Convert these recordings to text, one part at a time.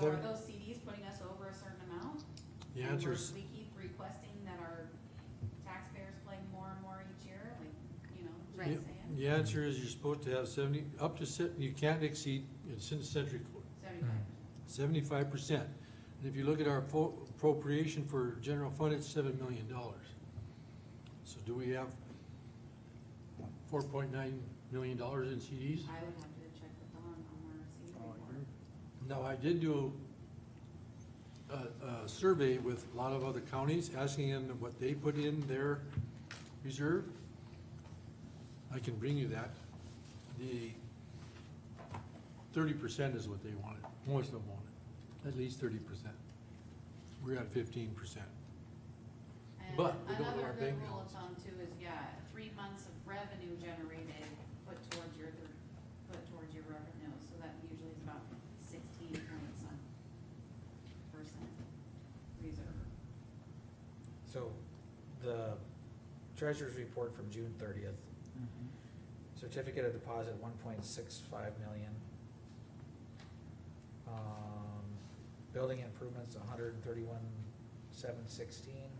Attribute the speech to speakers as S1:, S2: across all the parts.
S1: But are those CDs putting us over a certain amount? And
S2: The
S1: we're-
S2: answer's,
S1: We keep requesting that our taxpayers play more and more each year, like, you know,
S2: Yeah.
S1: just saying,
S2: the answer is you're supposed to have seventy, up to se- you can't exceed, it's in the century code,
S1: seventy-five.
S2: seventy-five percent. And if you look at our fo- appropriation for general fund, it's seven million dollars. So do we have four point nine million dollars in CDs?
S1: I would have to check with Dawn on our CD report.
S2: Now, I did do a, a survey with a lot of other counties, asking them what they put in their reserve. I can bring you that. The thirty percent is what they wanted, most of them wanted, at least thirty percent. We're at fifteen percent.
S1: And
S2: But we don't know our
S1: Another
S2: bank
S1: good rule of
S2: balance.
S1: thumb too is, yeah, three months of revenue generated put towards your, thir- put towards your revenue, so that usually is about sixteen point some percent reserve.
S3: So, the treasurer's report from June thirtieth, certificate of deposit one point six five million. Um, building improvements hundred and thirty-one seven sixteen.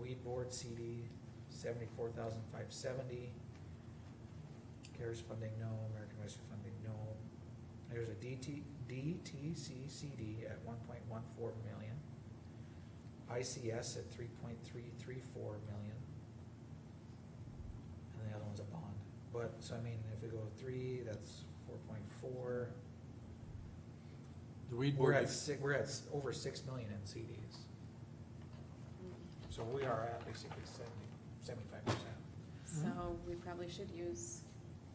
S3: Weed board CD seventy-four thousand five seventy. CARES funding, no, American Rescue funding, no. There's a DT, DTC CD at one point one four million. ICS at three point three three four million. And the other one's a bond, but, so I mean, if we go three, that's four point four.
S2: The weed
S3: We're
S2: board,
S3: at six, we're at s- over six million in CDs, so we are at basically seventy, seventy-five percent.
S4: So we probably should use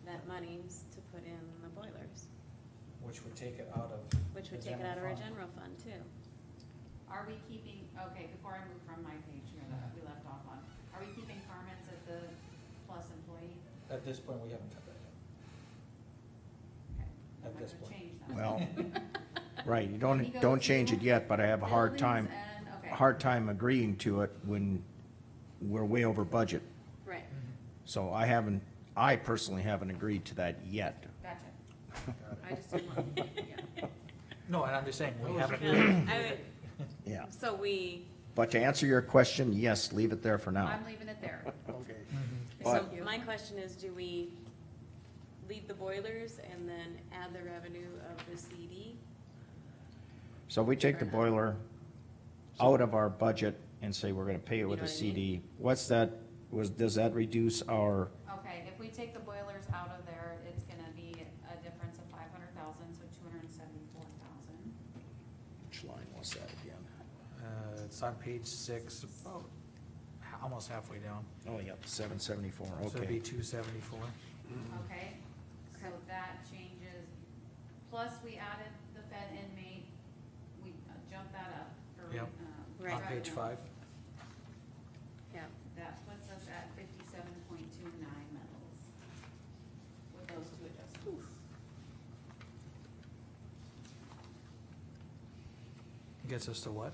S4: that money s- to put in the boilers,
S3: Which would take it out of.
S4: which would
S3: the
S4: take it out of our
S3: fund.
S4: general fund too.
S1: Are we keeping, okay, before I move from my page here that we left off on, are we keeping Carmen's at the plus employee?
S3: At this point, we haven't cut that yet.
S1: Okay,
S3: At
S1: I'm not gonna
S3: this point.
S1: change that.
S5: Well, right, you
S1: He
S5: don't,
S1: goes
S5: don't change it
S1: to
S5: yet, but I have a hard time,
S1: Buildings and- okay.
S5: hard time agreeing to it when we're way over budget.
S4: Right.
S5: So I haven't, I personally haven't agreed to that yet.
S1: Gotcha.
S3: Got it.
S1: I just didn't want, yeah.
S3: No, and I'm just saying,
S4: Oh,
S3: we haven't.
S4: I
S5: Yeah.
S4: would, so we,
S5: But to answer your question, yes, leave it there for now.
S1: I'm leaving it there.
S5: Okay.
S3: Mm-hmm.
S4: so
S5: But-
S4: my question is, do we leave the boilers and then add the revenue of the CD?
S5: So we take the boiler out of our budget and say we're gonna pay
S4: You
S5: it with
S4: know
S5: a
S4: what I
S5: CD. What's that, was, does that reduce our,
S1: Okay, if we take the boilers out of there, it's gonna be a difference of five hundred thousand, so two hundred and seventy-four thousand.
S5: which line was that again?
S3: Uh, it's on page six, about, ha- almost halfway down,
S5: Oh, yep, seven seventy-four,
S3: so it'd be
S5: okay.
S3: two seventy-four.
S1: Okay, so that changes, plus we added the Fed inmate, we uh, jumped that up for,
S3: Yep.
S1: um.
S4: Right.
S3: On page
S1: revenue.
S3: five,
S4: Yeah,
S1: That puts us at fifty-seven point two nine metals with those two adjustments.
S3: gets us to what?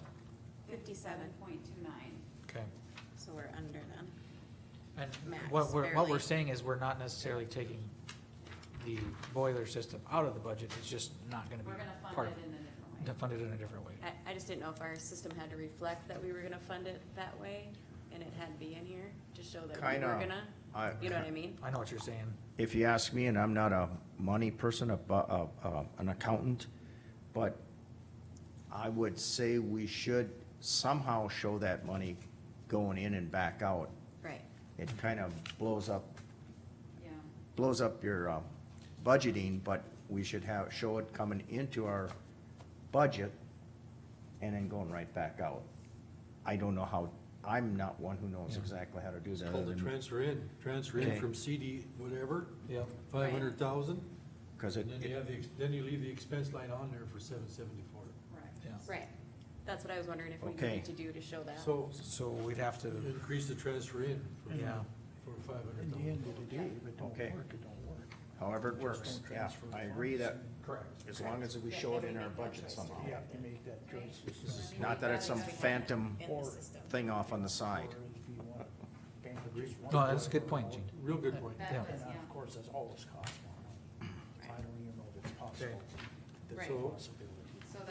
S4: fifty-seven,
S1: Point two nine.
S3: Okay.
S4: so we're under them.
S3: And
S4: Max,
S3: what we're, what we're
S4: barely.
S3: saying is we're not necessarily taking the boiler system out of the budget, it's just not gonna be
S1: We're gonna
S3: part
S1: fund
S3: of
S1: it in a different
S3: it,
S1: way.
S3: funded in a different way.
S4: I, I just didn't know if our system had to reflect that we were gonna fund it that way, and it had to be in here to show that we
S5: Kinda.
S4: were gonna,
S5: I-
S4: you know what I mean?
S3: I know what you're saying,
S5: if you ask me, and I'm not a money person, a, bu- a, a, an accountant, but I would say we should somehow show that money going in and back out.
S4: Right.
S5: It kind of blows up,
S1: Yeah,
S5: blows up your, uh, budgeting, but we should have, show it coming into our budget and then going right back out. I don't know how, I'm not one who knows
S3: Yeah.
S5: exactly how to do that.
S2: called
S5: other
S2: the
S5: than-
S2: transfer in, transfer in
S5: Okay.
S2: from CD whatever,
S3: yep.
S2: five hundred thousand.
S5: Cause it,
S2: And then you have the, ex- then you leave the expense line on there for seven seventy-four.
S1: correct.
S3: Yeah.
S4: Right, that's what I was wondering if we
S5: Okay.
S4: needed to do to show that.
S2: So
S3: So we'd have to,
S2: increase the transfer in for,
S3: Yeah.
S2: for five hundred
S6: In the
S2: thousand.
S6: end of the day, if it don't
S5: Okay.
S6: work, it don't work.
S5: however it works,
S6: don't
S5: yeah,
S6: transfer
S5: I
S6: the
S5: agree that
S6: funds.
S3: correct,
S5: As long as we
S1: Yeah,
S5: show it
S1: if we
S5: in our
S1: make that
S5: budget
S1: choice
S5: somehow.
S6: You have to make that choice.
S5: This is Not that it's some phantom
S4: In the system.
S5: thing off on the side.
S6: Or if you want to bank it just one
S3: no, that's a
S6: way
S3: good
S6: or
S3: point,
S6: another.
S3: Gene.
S2: Real good point.
S1: That
S3: Yeah.
S1: was,
S6: And uh, of
S1: yeah.
S6: course, that's always cost more money. I don't even know if it's possible.
S3: Okay.
S6: There's
S4: Right.
S6: a possibility.